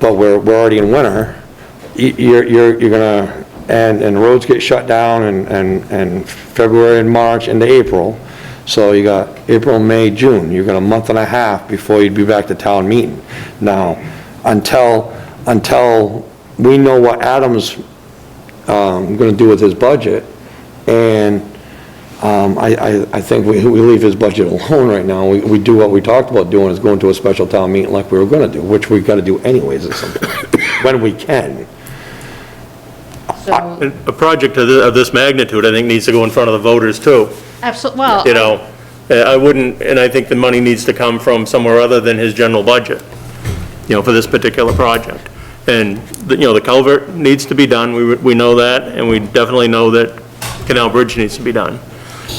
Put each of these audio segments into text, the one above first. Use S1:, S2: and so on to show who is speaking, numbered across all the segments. S1: but we're, we're already in winter, y- you're, you're, you're gonna, and, and roads get shut down in, in, in February and March into April. So you got April, May, June, you got a month and a half before you'd be back to town meeting. Now, until, until we know what Adam's, um, gonna do with his budget, and, um, I, I, I think we, we leave his budget alone right now. We, we do what we talked about doing, is going to a special town meeting like we were gonna do, which we gotta do anyways at some point, when we can.
S2: So,
S3: A project of thi- of this magnitude, I think, needs to go in front of the voters, too,
S2: absolutely, well,
S3: you know? Uh, I wouldn't, and I think the money needs to come from somewhere other than his general budget, you know, for this particular project. And, the- you know, the culvert needs to be done, we we know that, and we definitely know that Canal Bridge needs to be done.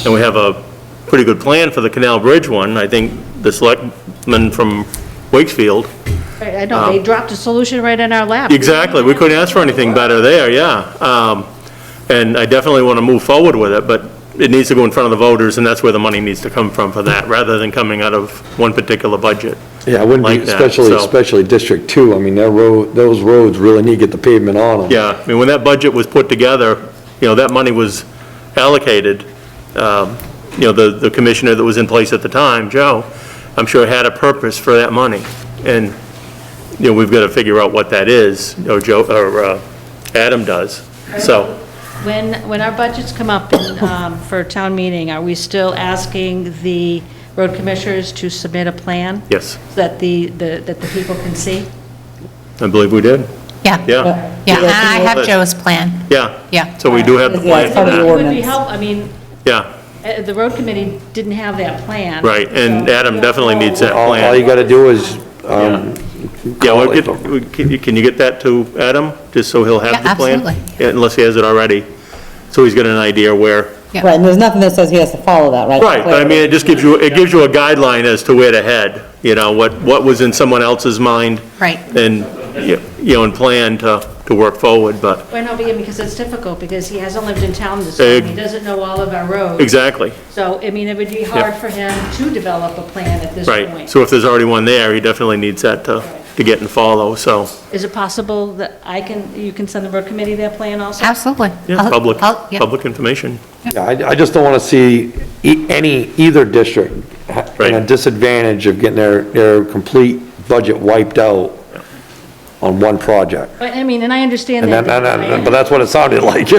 S3: And we have a pretty good plan for the Canal Bridge one, I think the selectman from Wakefield
S2: right, I know, they dropped a solution right in our lap.
S3: um, Exactly, we couldn't ask for anything better there, yeah. Um, And I definitely want to move forward with it, but it needs to go in front of the voters, and that's where the money needs to come from for that, rather than coming out of one particular budget.
S1: Yeah, I wouldn't
S3: like
S1: be,
S3: that,
S1: especially,
S3: so-
S1: especially District Two, I mean, that road, those roads really need to get the pavement on them.
S3: Yeah, I mean, when that budget was put together, you know, that money was allocated, um, you know, the, the commissioner that was in place at the time, Joe, I'm sure had a purpose for that money. And, you know, we've got to figure out what that is, or Joe, or uh, Adam does, so.
S2: When, when our budgets come up in, um, for town meeting, are we still asking the road commissioners to submit a plan?
S3: Yes.
S2: So That the, the- that the people can see?
S3: I believe we did.
S4: Yeah,
S3: Yeah,
S4: yeah, and I have
S3: But-
S4: Joe's plan.
S3: yeah.
S4: Yeah.
S3: So we do have the
S5: Yeah,
S3: plan
S5: it's
S3: for
S5: part of the
S3: that.
S2: It would be
S5: ordinance.
S2: help, I mean,
S3: Yeah,
S2: uh, the road committee didn't have that plan.
S3: right, and
S2: So-
S3: Adam definitely needs that
S1: All, all you
S3: plan.
S1: gotta do is, um,
S3: Yeah, we'll
S1: call
S3: get,
S1: it.
S3: we- can you- can you get that to Adam, just so he'll have
S4: Yeah,
S3: the plan?
S4: absolutely.
S3: Yeah, Unless he has it already, so he's got an idea where,
S4: Yeah.
S5: Right, and there's nothing that says he has to follow that, right?
S3: right, but I mean, it just gives you, it gives you a guideline as to where to head, you know, what, what was in someone else's mind.
S4: Right.
S3: And, you know, and plan to, to work forward, but,
S2: Well, no, because it's difficult, because he hasn't lived in town this long, he
S3: Ex-
S2: doesn't know all of our roads.
S3: exactly,
S2: So, I mean, it would be hard for him to develop a plan at this point.
S3: right. So if there's already one there, he definitely needs that to, to get and follow, so.
S2: Is it possible that I can, you can send the road committee that plan also?
S4: Absolutely.
S3: Yeah,
S4: I'll-
S3: public,
S4: I'll- yeah.
S3: public information.
S1: yeah, I, I just don't wanna see e- any, either district ha- in a
S3: Right.
S1: disadvantage of getting their, their complete budget wiped out on one project.
S2: But, I mean, and I understand
S1: And
S2: that.
S1: that, that- that- but that's what it sounded like.
S2: You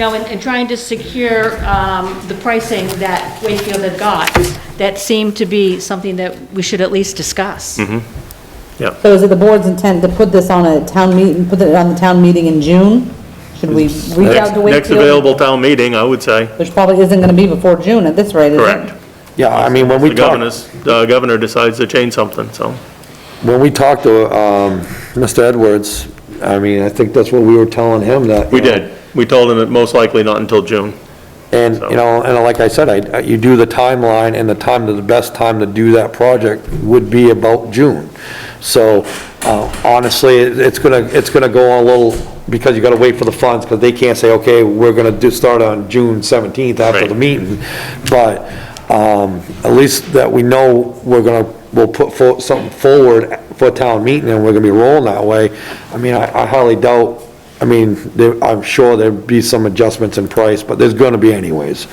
S2: know, and, and trying to secure, um, the pricing that Wakefield had got, that seemed to be something that we should at least discuss.
S3: Mm-hmm.
S5: So is it the board's intent to put this on a town meeting, put it on the town meeting in June? Should we reach
S3: Next
S5: out to Wakefield?
S3: next available town meeting, I would say,
S5: Which probably isn't gonna be before June at this rate, is it?
S3: correct.
S1: Yeah, I mean, when we
S3: The
S1: talk.
S3: governor's, the governor decides to change something, so,
S1: When we talked to, um, Mr. Edwards, I mean, I think that's what we were telling him that.
S3: we did. We told him that most likely not until June.
S1: And, you know, and like I said, I, you do the timeline and the time, to- the best time to do that project would be about June. So, uh, honestly, it- it's gonna, it's gonna go on a little, because you gotta wait for the funds, because they can't say, okay, we're gonna do, start on June seventeenth after the
S3: Right.
S1: meeting. But, um, at least that we know we're gonna, we'll put for, something forward for town meeting and we're gonna be rolling that way. I mean, I I highly doubt, I mean, there, I'm sure there'd be some adjustments in price, but there's gonna be anyways.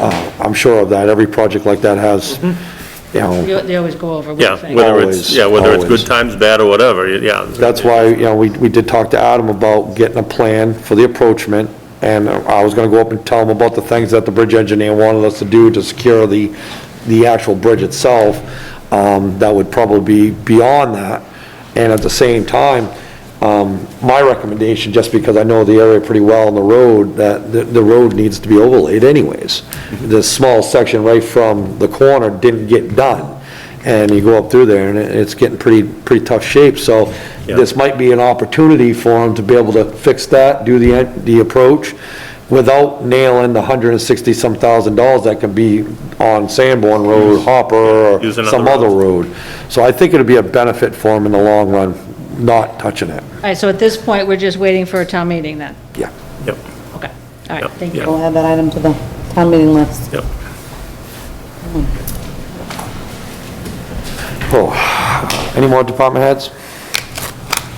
S1: Uh, I'm sure of that. Every project like that has, you know,
S2: You- They always go over. what
S3: Yeah,
S2: you think.
S3: whether it's,
S1: Always,
S3: yeah, whether it's
S1: always.
S3: good times, bad, or whatever, yeah.
S1: that's why, you know, we, we did talk to Adam about getting a plan for the approachment. And I was gonna go up and tell him about the things that the bridge engineer wanted us to do to secure the, the actual bridge itself. Um, that would probably be beyond that. And at the same time, um, my recommendation, just because I know the area pretty well on the road, that the, the road needs to be overlaid anyways.
S3: Mm-hmm.
S1: The small section right from the corner didn't get done, and you go up through there, and it- it's getting pretty, pretty tough shape, so this might be an opportunity for them to be able to fix that, do the, en- the approach, without nailing the hundred and sixty-some thousand dollars that could be on Sanborn Road, Hopper, or
S3: Use another
S1: some
S3: road.
S1: other road. So I think it'd be a benefit for them in the long run, not touching it.
S2: All right, so at this point, we're just waiting for a town meeting then?
S1: Yeah.
S3: Yep,
S2: Okay, all
S3: Yep,
S2: right, thank
S3: yeah.
S2: you.
S5: We'll add that item to the town meeting list.
S3: yep.
S1: Oh, any more department heads?